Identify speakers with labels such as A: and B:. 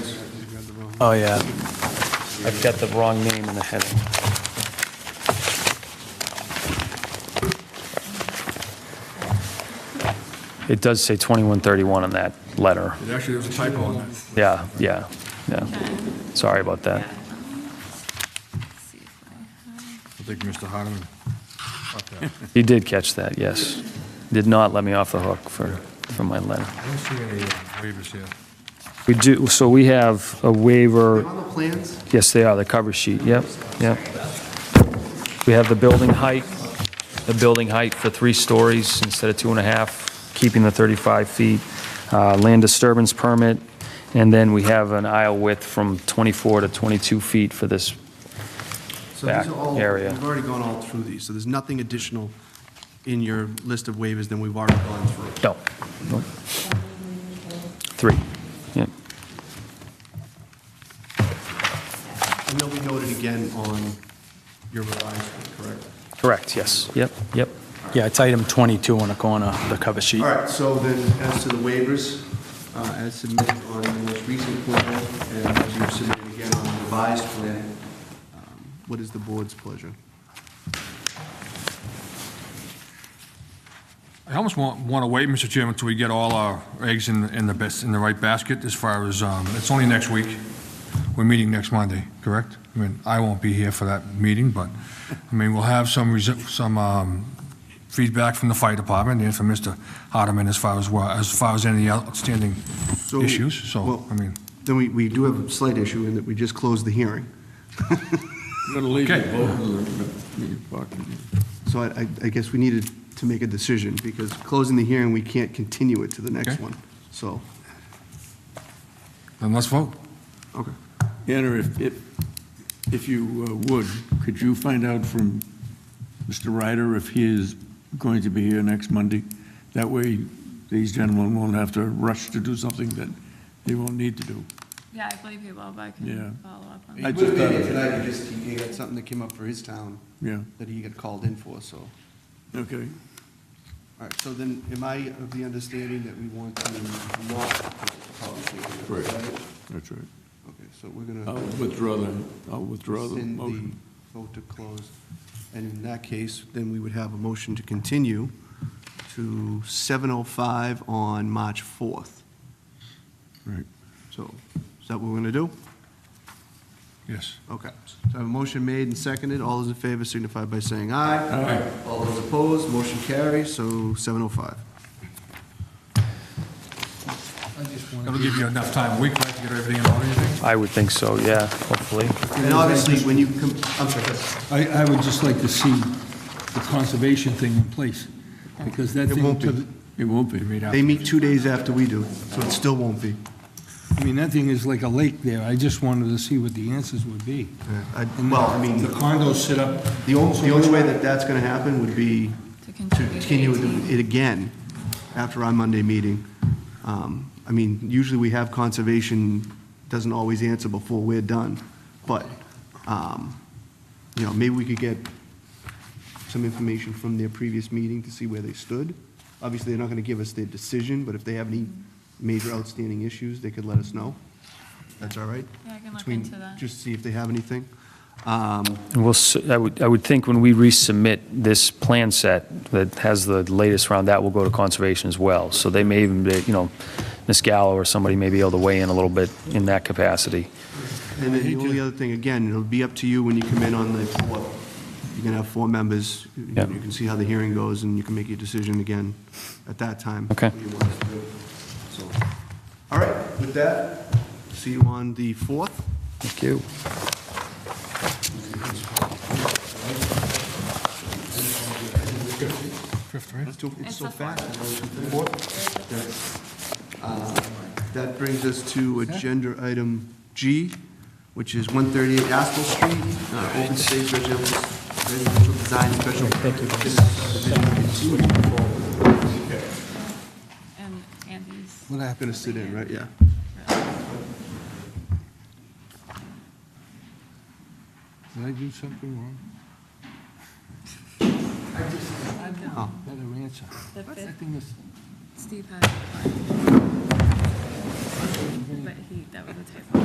A: Oh, yeah. I've got the wrong name in the heading. It does say 2131 on that letter.
B: It Actually, there was a typo on that.
A: Yeah, yeah, yeah. Sorry about that.
B: I think Mr. Hardeman.
A: You did catch that, yes. Did not let me off the hook for, for my letter.
B: I don't see any uh, waivers here.
A: We do, so we have a waiver.
C: On the plans,
A: Yes, they are, the cover sheet, yep, yep. We have the building height, the building height for three stories instead of two and a half, keeping the 35 feet, uh, land disturbance permit, and then we have an aisle width from 24 to 22 feet for this.
C: so these
A: Back
C: are all,
A: area.
C: we've already gone all through these, so there's nothing additional in your list of waivers than we've already gone through.
A: No, no. Three, yep,
C: And they'll be noted again on your revised, one, correct?
A: correct, yes, yep, yep.
D: Yeah, it's item 22 on the corner, the cover sheet.
C: All right, so then as to the waivers, uh, as submitted on the most recent plan and as you've submitted again on the revised plan, um, what is the board's pleasure?
B: I almost want, want to wait, Mr. Chairman, until we get all our eggs in, in the best, in the right basket as far as, um, it's only next week. We're meeting next Monday, correct? I mean, I won't be here for that meeting, but, I mean, we'll have some, resi- some, um, feedback from the fire department and from Mr. Hardeman as far as, wha- as far as any outstanding
C: So-
B: issues, so,
C: well-
B: I mean,
C: Then we, we do have a slight issue in that we just closed the hearing.
E: I'm going to leave you
B: Okay.
E: both of them. You fucking-
C: So I, I- I guess we needed to make a decision, because closing the hearing, we can't continue it to the next
B: Okay.
C: one. So,
B: then let's vote.
C: okay.
E: Anna, if, if, if you uh, would, could you find out from Mr. Ryder if he is going to be here next Monday? That way, these gentlemen won't have to rush to do something that they won't need to do.
F: Yeah, I believe you will, but I
E: Yeah.
F: can follow up on that.
E: I just thought,
C: tonight, he just, he got something that came up for his town
E: yeah,
C: that he got called in for, so.
E: okay.
C: All right, so then, am I of the understanding that we want to not close the public hearing? Is that it?
E: That's right.
C: Okay, so we're gonna.
E: I'll withdraw the, I'll withdraw the
C: rescind
E: motion.
C: the vote to close. And in that case, then we would have a motion to continue to 7:05 on March 4th.
E: Right.
C: So is that what we're going to do?
B: Yes.
C: Okay. So I have a motion made and seconded. All those in favor signify by saying aye.
E: Aye.
C: All those opposed, motion carries, so 7:05.
B: That'll give you enough time, a week, right, to get everything in order, you think?
A: I would think so, yeah, hopefully.
C: And obviously, when you, com- I'm sorry.
G: I, I would just like to see the conservation thing in place, because that
C: It
G: thing,
C: won't
G: to
C: be.
G: the-
E: It won't be.
C: They meet two days after we do, so it still won't be.
G: I mean, that thing is like a lake there, I just wanted to see what the answers would be.
C: I-
G: And
C: Well, I
G: The
C: mean,
G: condos sit up.
C: the only, the only way that that's going to happen would be
F: To
C: to continue
F: continue the
C: it again after our Monday meeting. Um, I mean, usually we have conservation, doesn't always answer before we're done, but, um, you know, maybe we could get some information from their previous meeting to see where they stood. Obviously, they're not going to give us their decision, but if they have any major outstanding issues, they could let us know. That's all right?
F: Yeah, I can look
C: Between-
F: into that.
C: Just see if they have anything. Um,
A: And we'll, s- I would, I would think when we resubmit this plan set that has the latest round, that will go to conservation as well. So they may even, be, you know, Ms. Gallo or somebody may be able to weigh in a little bit in that capacity.
C: And then the only other thing, again, it'll be up to you when you come in on the fourth. You're gonna have four members, you
A: Yeah.
C: you can see how the hearing goes, and you can make your decision again at that time.
A: Okay.
C: what you want us to do. So, All right, with that, see you on the fourth.
A: Thank you.
C: Let's do it. It's
F: It's
C: so
F: the
C: fast. Uh, That brings us to agenda item G, which is 138 Aspel Street, uh, open space residential residential design special. Thank you.
F: And Andy's.
C: What happened? Gonna sit in, right, yeah.
G: Did I do something wrong? I just, I
C: Oh.
G: don't, better answer.
F: The
G: What's
F: fifth.
G: that thing that's-
F: Steve had. But he, that was a typo.